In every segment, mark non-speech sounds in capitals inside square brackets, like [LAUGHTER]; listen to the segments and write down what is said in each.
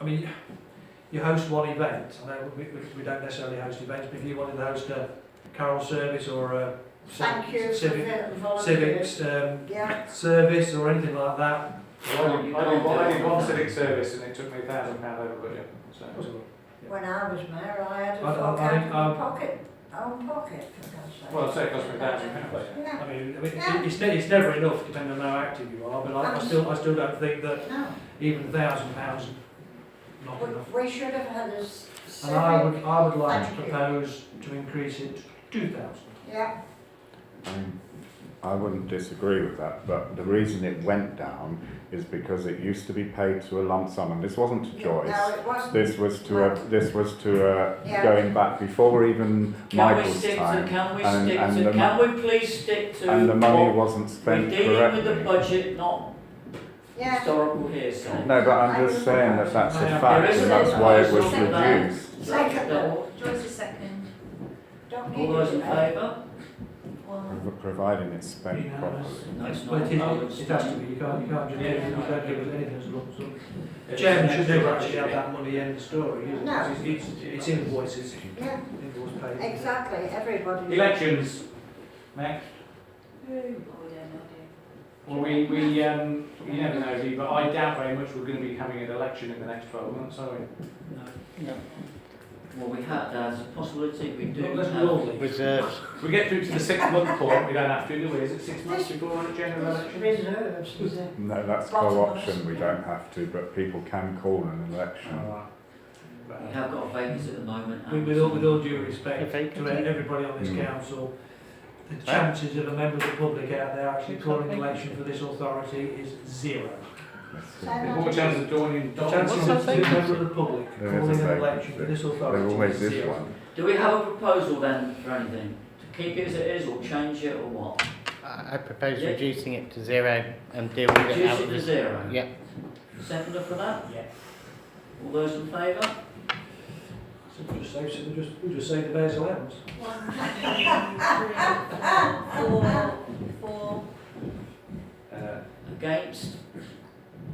I mean, you host one event. I know we, we, we don't necessarily host events, but if you wanted to host a carol service or a ci- Thank you for civic, the volunteers. civics um, Yeah, service or anything like that, I only, I only, I only one civic service and it took me a thousand pound over budget. So. when I was mayor, I had a I- I- full I- count I- pocket, own pocket, for God's sake. Well, I'd say it cost me a thousand pounds. Yeah, Um, I mean, I mean it- it's, ne- it's never enough depending on how active you are, but I, I still I still don't think that no, even a thousand pounds is not enough. we, we should have had a s- And I civic, would I would like to Thank you. propose to increase it to two thousand. yeah, Um, I wouldn't disagree with that, but the reason it went down is because it used to be paid to a lump sum, and this wasn't to no, Joyce. it wasn't, This was to a, this was to Yeah. a, going back before even Can we Michael's stick to, time. can we and- stick and to, the can we please stick to? And the money what- wasn't We're spent dealing with the correctly. budget, not yeah. historical hearsay. No, but I'm just saying that that's a fact, and that's why it was reduced. Second. All Joyce is second. Don't need those in it, no. favour? Well, Prov- Providing it's spent properly. No, it's But not. it Oh, is, it's it has to not. be, you can't, you can't just, you Yeah. don't give us anything as a lump sum. Chairman should never actually have that money in the story, is it? No. It's, it's- it's invoices, yeah, invoice paid. exactly, everybody. Elections. Mac. Well, we, we um, you never know, Lee, but I doubt very much we're going to be having an election in the next 12 months, are we? No. Well, we had that as a possibility, we do. Let's have- roll it. Reserves. We get through to the six month point, we don't have to, do we? Is it six months before a general It's election? Reserves, is it? No, that's Bottom co-option, we line. don't have to, but people can call an election. Alright. We have got a vacancy at the moment. With, and- with all, with all due respect If I to everybody on this Mm. council, the chances of a member of the public out there actually calling an election for this authority is zero. That's Say that it. There's more chance of joining The Don. chances What's that of a member of the public There is a calling an vacancy. election for this There authority always is is zero. one. Do we have a proposal then for anything? To keep it as it is or change it or what? I I propose [LAUGHS] Yeah. reducing it to zero and deal with it Reduce out it of to the. zero? Yeah. Seconder for that? Yeah. All those in favour? So we'll just say, so we'll just, we'll just say the mayor's allowance. One, two, three, four, four. Uh, Against?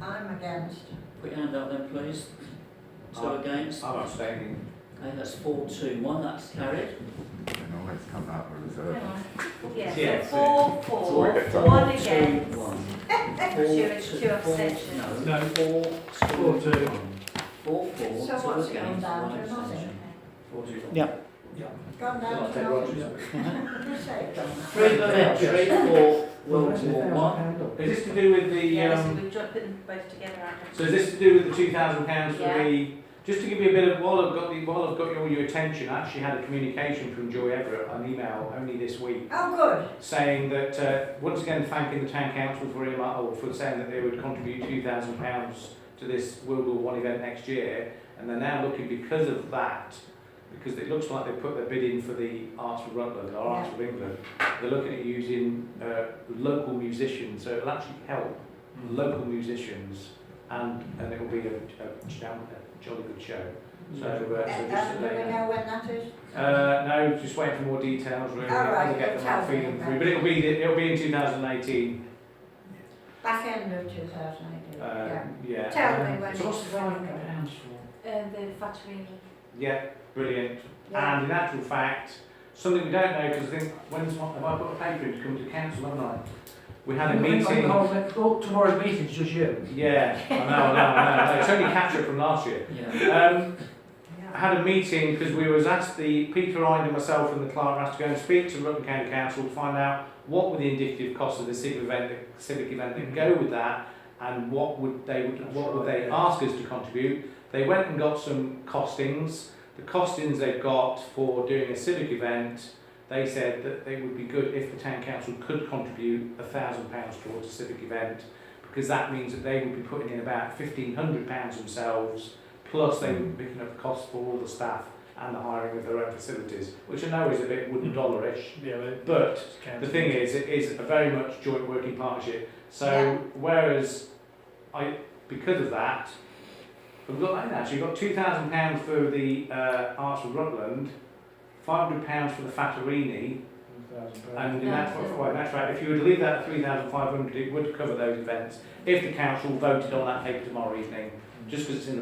I'm against. Put your hand up then, please. Two Aye. against. I'm abstaining. Okay, that's four, two, one, that's carried. They can always come out uh, with reserve. Hang on. Yeah. Yeah, so four, four, Sorry, it's one Two, against. [LAUGHS] one. Two, Four, two two, four, abstentions. No, No. four, Four, two, two. one. Four, four, So two what's it against, gone down one to, has it? abstention. Four, two, one. Yeah. Gone Well, down I to take Roger's. nothing. Did you say it, Donna? Three Baventry, four, Well, Wilton, one. Is this to do with the, Yeah, so um, we've dropped them both together, haven't so is this to do with the two thousand pounds for Yeah. the, just to give you a bit of, while I've got the, while I've got all your attention, I actually had a communication from Joy Everett on email only this week. Oh, good. saying that, uh, once again thanking the town council for, earmark- or for saying that they would contribute £2,000 to this World War One event next year, and they're now looking because of that, because it looks like they put their bid in for the Arts of Rutland, or Arts of England, they're looking at using uh, local musicians, so it'll actually help local musicians, and, and it'll be a, a, jam- a jolly good show. So, uh, so And just and to do let we you know. know when that is? Uh, no, just waiting for more details. Really, All right, We'll get them tell out feeding me through, but it'll be it'll be in 2018. Back end of two thousand eighteen, Uh, yeah. yeah. Tell me Um, when so what's it's the value going. of the house for? we? Uh, the Fattorini. Yeah, brilliant. Yeah. And in actual fact, something we don't know because I think when's my, have I put a paper in to come to council, haven't I? We had a meeting. Tomorrow's meeting's just you. Yeah, I know, I know, I know. It's only capture from last year. Yeah. Um, Yeah. had a meeting because we was asked the Peter Ide and myself and the clerk were asked to go and speak to Rutland County Council to find out what were the indicative costs of the civic event, the civic event that go with that, and what would they would, what would they ask us to contribute. They went and got some costings. The costings they've got for doing a civic event, they said that they would be good if the town council could contribute a thousand pounds towards a civic event, because that means that they would be putting in about fifteen hundred pounds themselves plus they would be picking up the cost for all the staff and the hiring of their own facilities, which I know is a bit wooden dollarish. Yeah, But but the thing is, it is a very much joint working partnership. So whereas I, because of that, we've got and actually we've got two thousand pounds for the uh, Arts of Rutland, five hundred pounds for the Fattorini, and in that, That's it. well, that's right. If you were to leave that at three thousand five hundred, it would cover those events if the council voted on that paper tomorrow evening, just because it's in the